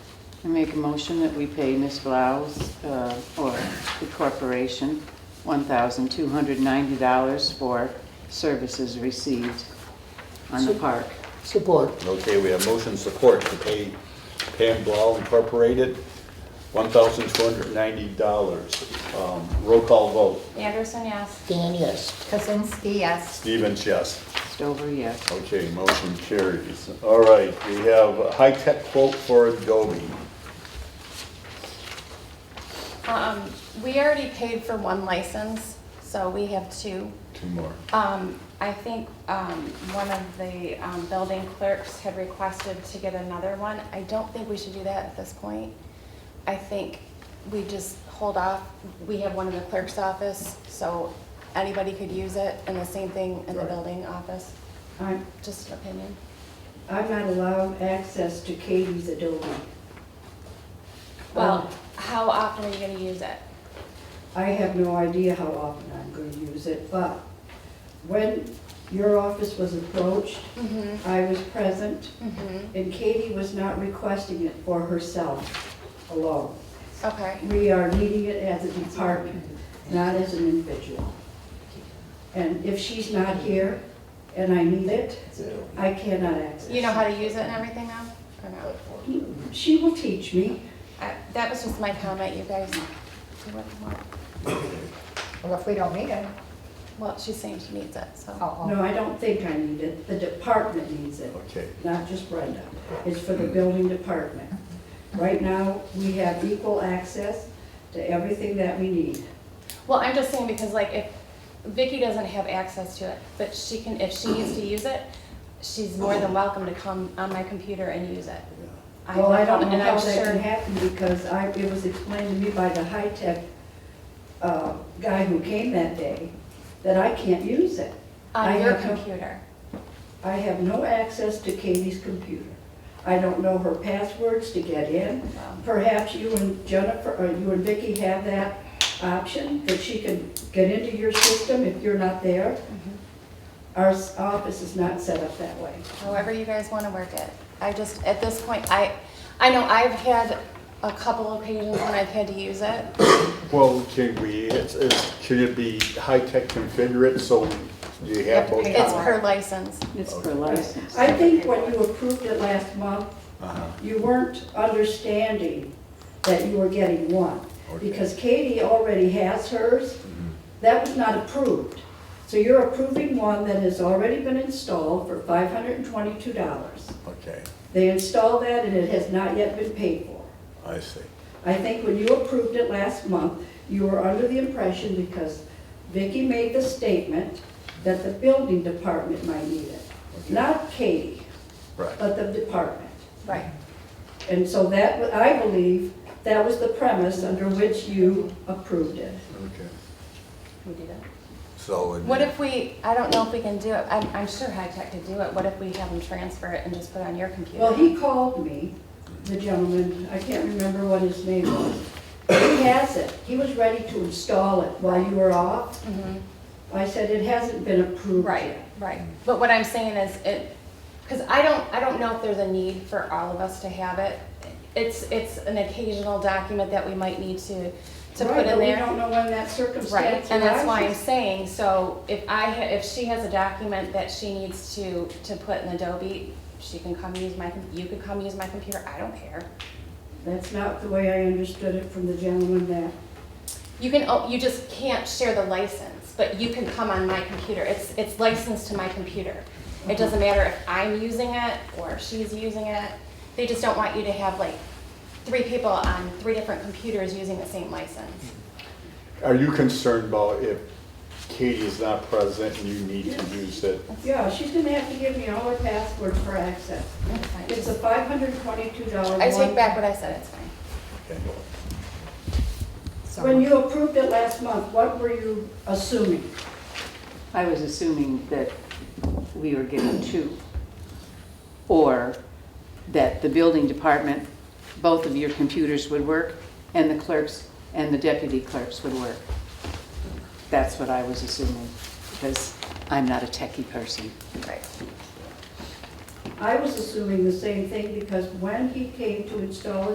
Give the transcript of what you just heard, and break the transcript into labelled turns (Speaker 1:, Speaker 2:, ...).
Speaker 1: I make a motion that we pay Ms. Blau's, uh, or the corporation, $1,290 for services received on the park.
Speaker 2: Support.
Speaker 3: Okay, we have motion support to pay Pam Blau Incorporated $1,290. Um, Roll call vote.
Speaker 4: Anderson, yes.
Speaker 2: Dan, yes.
Speaker 4: Kuzinski, yes.
Speaker 3: Stevens, yes.
Speaker 1: Stover, yes.
Speaker 3: Okay, motion carries. All right, we have a high-tech quote for Adobe.
Speaker 5: Um, we already paid for one license, so we have two.
Speaker 3: Two more.
Speaker 5: Um, I think, um, one of the, um, building clerks had requested to get another one. I don't think we should do that at this point. I think we just hold off. We have one in the clerk's office, so anybody could use it, and the same thing in the
Speaker 3: Right.
Speaker 5: building office.
Speaker 6: I'm,
Speaker 5: Just an opinion.
Speaker 6: I'm not allowed access to Katie's Adobe. Uh,
Speaker 5: Well, how often are you gonna use it?
Speaker 6: I have no idea how often I'm going to use it, but when your office was approached,
Speaker 5: Mm-hmm.
Speaker 6: I was present, and Katie was not requesting it for herself alone.
Speaker 5: Okay.
Speaker 6: We are needing it as a department, not as an individual. And if she's not here and I need it, I cannot access it.
Speaker 5: You know how to use it and everything now, or no?
Speaker 6: She will teach me.
Speaker 5: I- That was just my comment, you guys. You want more?
Speaker 4: Well, if we don't need it,
Speaker 5: Well, she's saying she needs it, so.
Speaker 4: oh,
Speaker 6: No, I don't think I need it. The department needs it.
Speaker 3: Okay.
Speaker 6: not just Brenda. It's for the building department. Right now, we have equal access to everything that we need.
Speaker 5: Well, I'm just saying because like if Vicky doesn't have access to it, but she can, if she needs to use it, she's more than welcome to come on my computer and use it. I
Speaker 6: Well, I
Speaker 5: have
Speaker 6: don't
Speaker 5: one,
Speaker 6: know
Speaker 5: and
Speaker 6: how
Speaker 5: I'm
Speaker 6: that can
Speaker 5: sure-
Speaker 6: happen because I, it was explained to me by the high-tech uh, guy who came that day that I can't use it. I
Speaker 5: On your
Speaker 6: have no-
Speaker 5: computer.
Speaker 6: I have no access to Katie's computer. I don't know her passwords to get in. Perhaps you and Jennifer, or you and Vicki have that option, that she can get into your system if you're not there. Our s- office is not set up that way.
Speaker 5: however you guys want to work it. I just, at this point, I, I know I've had a couple occasions when I've had to use it.
Speaker 3: Well, can we, it's, it's, should it be high-tech configure it so you have both?
Speaker 5: It's per license.
Speaker 1: It's per license.
Speaker 6: I think when you approved it last month,
Speaker 3: Uh-huh.
Speaker 6: you weren't understanding that you were getting one.
Speaker 3: Okay.
Speaker 6: Because Katie already has hers. That was not approved. So you're approving one that has already been installed for five hundred and twenty-two dollars.
Speaker 3: Okay,
Speaker 6: They installed that and it has not yet been paid for.
Speaker 3: I see.
Speaker 6: I think when you approved it last month, you were under the impression because Vicki made the statement that the building department might need it. Not Katie,
Speaker 3: Right.
Speaker 6: but the department.
Speaker 5: Right.
Speaker 6: And so that, wa- I believe, that was the premise under which you approved it.
Speaker 3: Okay.
Speaker 5: We do that.
Speaker 3: So. it'd be-
Speaker 5: What if we, I don't know if we can do it, I'm, I'm sure High Tech could do it, what if we have them transfer it and just put it on your computer?
Speaker 6: Well, he called me, the gentleman, I can't remember what his name was. He has it, he was ready to install it while you were off.
Speaker 5: Mhm.
Speaker 6: I said, it hasn't been approved
Speaker 5: Right,
Speaker 6: yet.
Speaker 5: right, but what I'm saying is, it, because I don't, I don't know if there's a need for all of us to have it. It's, it's an occasional document that we might need to, to put in there.
Speaker 6: Right, but we don't know when that circumstance
Speaker 5: Right, and that's why I'm
Speaker 6: arises.
Speaker 5: saying, so if I, ha- if she has a document that she needs to, to put in Adobe, she can come use my, com- you could come use my computer, I don't care.
Speaker 6: That's not the way I understood it from the gentleman that,
Speaker 5: You can, o- you just can't share the license, but you can come on my computer, it's, it's licensed to my computer. It doesn't matter if I'm using it or she's using it, they just don't want you to have like three people on three different computers using the same license.
Speaker 3: Are you concerned about if Katie is not present and you need to use it?
Speaker 6: yeah, she's gonna have to give me all her passwords for access.
Speaker 5: That's fine.
Speaker 6: It's a five hundred twenty-two dollar one.
Speaker 5: I take back what I said, it's fine.
Speaker 4: so
Speaker 6: When you approved it last month, what were you assuming?
Speaker 1: I was assuming that we were getting two, or that the building department, both of your computers would work, and the clerks and the deputy clerks would work. That's what I was assuming, because I'm not a techie person.
Speaker 5: Right.
Speaker 6: I was assuming the same thing because when he came to install it.